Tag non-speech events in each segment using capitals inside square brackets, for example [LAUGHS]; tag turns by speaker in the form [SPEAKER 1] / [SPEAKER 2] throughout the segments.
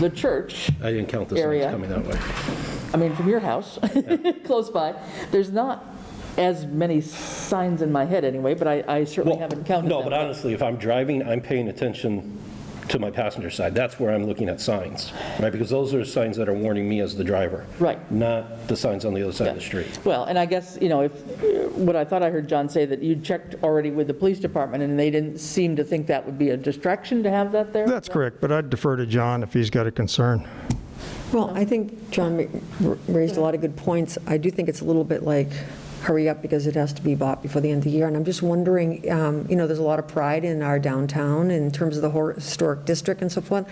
[SPEAKER 1] the church
[SPEAKER 2] I didn't count the signs
[SPEAKER 1] Area.
[SPEAKER 2] coming that way.
[SPEAKER 1] I mean, from your house, [LAUGHS] close by, there's not as many signs in my head anyway, but I I certainly
[SPEAKER 2] Well,
[SPEAKER 1] haven't counted
[SPEAKER 2] No, but
[SPEAKER 1] them.
[SPEAKER 2] honestly, if I'm driving, I'm paying attention to my passenger side. That's where I'm looking at signs, right? Because those are signs that are warning me as the driver.
[SPEAKER 1] Right.
[SPEAKER 2] Not the signs on the other side of the street.
[SPEAKER 1] Well, and I guess, you know, if, what I thought I heard John say, that you checked already with the police department, and they didn't seem to think that would be a distraction to have that there?
[SPEAKER 3] That's correct, but I'd defer to John if he's got a concern.
[SPEAKER 4] Well, I think John ra- raised a lot of good points. I do think it's a little bit like, hurry up, because it has to be bought before the end of the year. And I'm just wondering, um, you know, there's a lot of pride in our downtown in terms of the hor- historic district and so forth.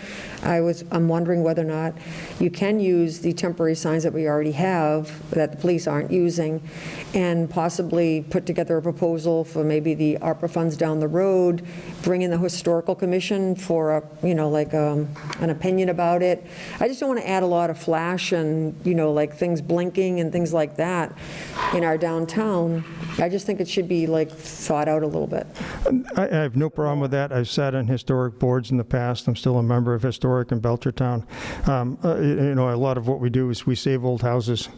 [SPEAKER 4] I was, I'm wondering whether or not you can use the temporary signs that we already have, that the police aren't using, and possibly put together a proposal for maybe the ARPA funds down the road, bring in the Historical Commission for, a you know, like, um, an opinion about it. I just don't want to add a lot of flash and, you know, like, things blinking and things like that in our downtown. I just think it should be, like, thought out a little bit.
[SPEAKER 3] I I have no problem with that. I've sat on historic boards in the past. I'm still a member of Historic in Belchertown. Um, uh, y- You know, a lot of what we do is we save old houses.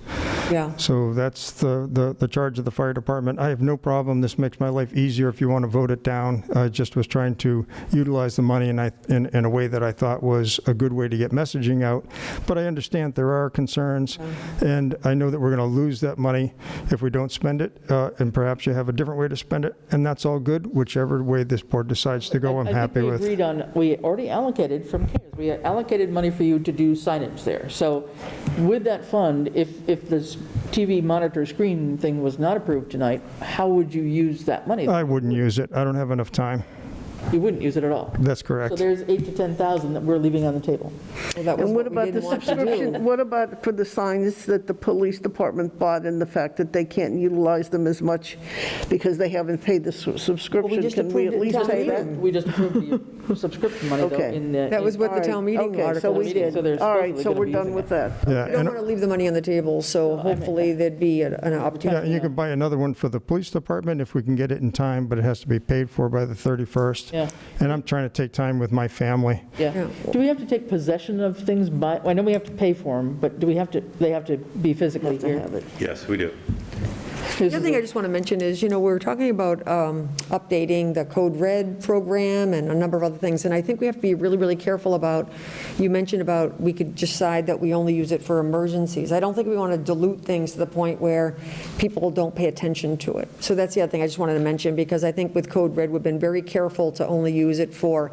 [SPEAKER 4] Yeah.
[SPEAKER 3] So that's the, the, the charge of the fire department. I have no problem, this makes my life easier if you want to vote it down. I just was trying to utilize the money and I, in, in a way that I thought was a good way to get messaging out. But I understand there are concerns,
[SPEAKER 1] Mm-hmm.
[SPEAKER 3] and I know that we're going to lose that money if we don't spend it, uh, and perhaps you have a different way to spend it, and that's all good, whichever way this board decides to go, I'm happy
[SPEAKER 1] I think we
[SPEAKER 3] with.
[SPEAKER 1] agreed on, we already allocated from CARES, we allocated money for you to do signage there. So with that fund, if, if this TV monitor screen thing was not approved tonight, how would you use that money?
[SPEAKER 3] I wouldn't use it, I don't have enough time.
[SPEAKER 1] You wouldn't use it at all.
[SPEAKER 3] That's
[SPEAKER 1] So
[SPEAKER 3] correct.
[SPEAKER 1] there's eight to 10,000 that we're leaving on the table.
[SPEAKER 4] Well, that was
[SPEAKER 5] And what
[SPEAKER 4] what we
[SPEAKER 5] about the
[SPEAKER 4] didn't want to
[SPEAKER 5] subscription,
[SPEAKER 4] do.
[SPEAKER 5] what about for the signs that the police department bought and the fact that they can't utilize them as much because they haven't paid the su- subscription?
[SPEAKER 4] just
[SPEAKER 5] Can we
[SPEAKER 4] approved
[SPEAKER 5] at
[SPEAKER 4] it
[SPEAKER 5] least
[SPEAKER 4] down
[SPEAKER 5] pay
[SPEAKER 4] here.
[SPEAKER 5] that?
[SPEAKER 4] Meeting.
[SPEAKER 1] We just approved the subscription money though
[SPEAKER 5] Okay.
[SPEAKER 1] in the.
[SPEAKER 4] That was
[SPEAKER 1] in-
[SPEAKER 4] what the town meeting
[SPEAKER 5] Okay, so
[SPEAKER 4] article
[SPEAKER 5] we
[SPEAKER 4] was.
[SPEAKER 5] did.
[SPEAKER 1] So they're
[SPEAKER 5] All right,
[SPEAKER 1] supposedly
[SPEAKER 5] so
[SPEAKER 1] gonna
[SPEAKER 5] we're
[SPEAKER 1] be
[SPEAKER 5] done
[SPEAKER 1] using
[SPEAKER 5] with that.
[SPEAKER 3] Yeah,
[SPEAKER 4] We don't
[SPEAKER 3] and-
[SPEAKER 4] want to leave the money on the table, so hopefully there'd be a- an
[SPEAKER 3] Yeah,
[SPEAKER 4] opportunity.
[SPEAKER 3] and you can buy another one for the police department if we can get it in time, but it has to be paid for by the 31st.
[SPEAKER 1] Yeah.
[SPEAKER 3] And I'm trying to take time with my family.
[SPEAKER 1] Yeah. Do we have to take possession of things by, I know we have to pay for them, but do we have to, they have to be physically here?
[SPEAKER 6] Yes, we do.
[SPEAKER 1] This
[SPEAKER 4] The
[SPEAKER 1] is
[SPEAKER 4] other thing
[SPEAKER 1] a-
[SPEAKER 4] I just want to mention is, you know, we were talking about um, updating the Code Red program and a number of other things, and I think we have to be really, really careful about, you mentioned about, we could decide that we only use it for emergencies. I don't think we want to dilute things to the point where people don't pay attention to it. So that's the other thing I just wanted to mention, because I think with Code Red, we've been very careful to only use it for,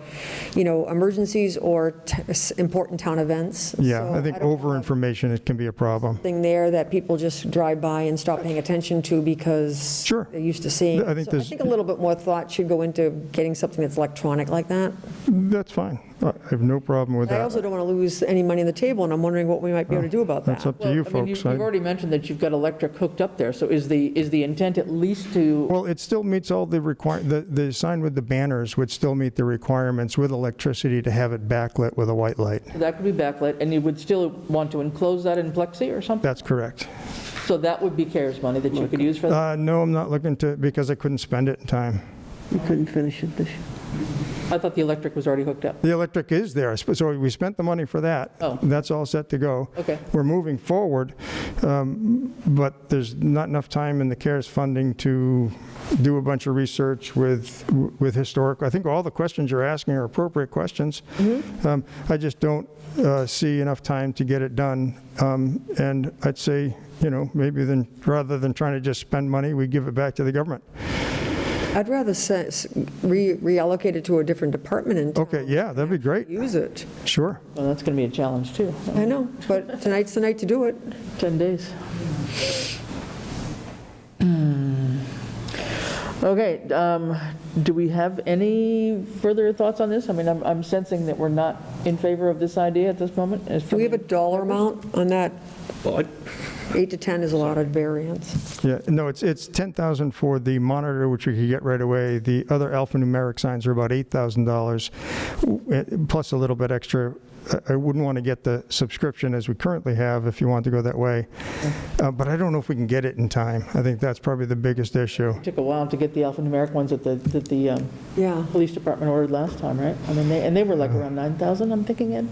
[SPEAKER 4] you know, emergencies or t- s- important town events.
[SPEAKER 3] Yeah,
[SPEAKER 4] So
[SPEAKER 3] I think
[SPEAKER 4] don't want that-
[SPEAKER 3] over-information, it can be a problem.
[SPEAKER 4] thing there that people just drive by and stop paying attention to because
[SPEAKER 3] Sure.
[SPEAKER 4] they're used to seeing.
[SPEAKER 3] I think
[SPEAKER 4] So
[SPEAKER 3] there's-
[SPEAKER 4] I think a little bit more thought should go into getting something that's electronic like that.
[SPEAKER 3] That's fine. I I have no problem with
[SPEAKER 4] But I also
[SPEAKER 3] that. Oh,
[SPEAKER 4] don't want to lose any money on the table, and I'm wondering what we might be able to do about that.
[SPEAKER 3] That's up to you
[SPEAKER 1] I mean, you-
[SPEAKER 3] folks.
[SPEAKER 1] You've
[SPEAKER 3] I-
[SPEAKER 1] already mentioned that you've got electric hooked up there, so is the, is the intent at least to,
[SPEAKER 3] Well, it still meets all the require, the, the sign with the banners would still meet the requirements with electricity to have it backlit with a white light.
[SPEAKER 1] that could be backlit, and you would still want to enclose that in plexi or something?
[SPEAKER 3] That's correct.
[SPEAKER 1] So that would be CARES money that you could use for that?
[SPEAKER 3] Uh, No, I'm not looking to, because I couldn't spend it in time.
[SPEAKER 5] We couldn't finish it this year.
[SPEAKER 3] Uh,
[SPEAKER 1] I thought the electric was already hooked up.
[SPEAKER 3] The electric is there, sp- so we spent the money for that.
[SPEAKER 1] Oh.
[SPEAKER 3] That's all set to go.
[SPEAKER 1] Okay.
[SPEAKER 3] We're moving forward, um, but there's not enough time in the CARES funding to do a bunch of research with, with historic. I think all the questions you're asking are appropriate questions.
[SPEAKER 1] Mm-hmm.
[SPEAKER 3] Um, I just don't uh, see enough time to get it done. Um, And I'd say, you know, maybe then, rather than trying to just spend money, we give it back to the government.
[SPEAKER 4] I'd rather se- s- re- reallocate it to a different department and
[SPEAKER 1] Oh.
[SPEAKER 3] Okay, yeah, that'd be great,
[SPEAKER 4] use it.
[SPEAKER 3] sure.
[SPEAKER 1] Well, that's going to be a challenge, too.
[SPEAKER 4] I know, but tonight's the night to do it.
[SPEAKER 1] 10 days. Hmm. Okay, um, do we have any further thoughts on this? I mean, I'm I'm sensing that we're not in favor of this idea at this moment. as
[SPEAKER 4] Do we have a
[SPEAKER 1] from-
[SPEAKER 4] dollar amount on that?
[SPEAKER 2] Well, I-
[SPEAKER 4] Eight to 10 is a lot of variance.
[SPEAKER 3] Yeah, no, it's, it's 10,000 for the monitor, which we could get right away. The other alphanumeric signs are about $8,000, w- eh, plus a little bit extra. I- I wouldn't want to get the subscription as we currently have, if you want to go that way. Uh, But I don't know if we can get it in time. I think that's probably the biggest issue.
[SPEAKER 1] It Took a while to get the alphanumeric ones that the, that the um,
[SPEAKER 4] Yeah.
[SPEAKER 1] police department ordered last time, right? I mean, they, and they were like around 9,000, I'm thinking, Ed?